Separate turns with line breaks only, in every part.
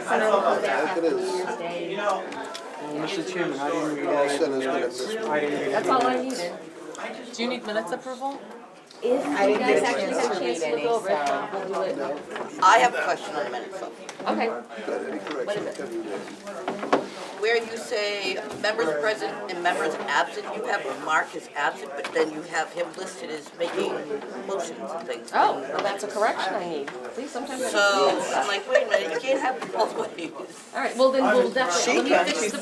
I don't know about that.
It is.
You know,
Well, Mr. Chairman, I didn't read
I said
that.
it's gonna miss.
I didn't read it.
That's all I needed.
I just.
Do you need minutes approval?
If you
get a
guys actually
chance
have a
to
chance
read
to look
any,
over it,
so-
we'll do it.
I have a question on the minutes. though.
Okay,
Got any corrections? Can you-
Where you say members present and members absent, you have a mark as absent, but then you have him listed as making motions and things.
oh, well, that's a correction I need. Please, sometimes I don't
So
see it.
I'm like, wait a minute, you can't have it both ways.
All right, well, then we'll
She
definitely, let me fix the,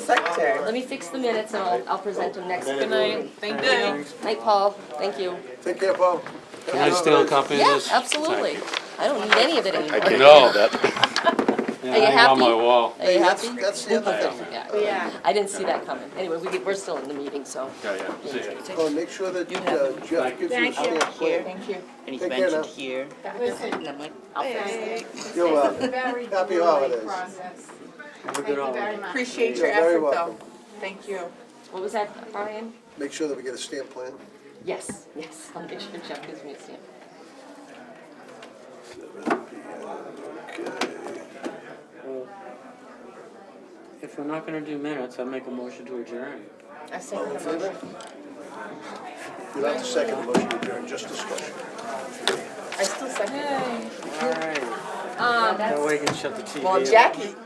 let me fix the minutes and I'll, I'll present them next.
Good night, thank you.
Night, Paul, thank you.
Take care, Paul.
Can I still copy
Yeah,
this?
absolutely. I don't need any of it anymore.
I know that.
Are you
hang on my
happy?
wall.
Are you
That's-
happy?
That's the other thing.
Yeah,
Yeah.
I didn't see that coming. Anyway, we, get- we're still in the meeting, so.
Yeah, yeah, see ya.
Oh, make sure that uh, Jeff gives you a stamp. plan.
Thank you. And he's
Take care now.
mentioned here.
That was
And I'm like,
I'll fix it.
You're welcome.
very
Happy
grueling
holidays.
process.
Have a
Thank
good
you
holiday.
very much.
Appreciate
You're
your
very
effort,
welcome.
though. Thank you.
What was that, Brian?
Make sure that we get a stamp plan.
Yes, yes, I'll make sure Jeff gives me a stamp.
Well, If we're not gonna do minutes, I'll make a motion to adjourn.
I second the motion.
You don't have to second the motion, adjourn, just discussion.
I still second.
Alright,
Um,
that way we can shut the TV off.
Well, Jackie,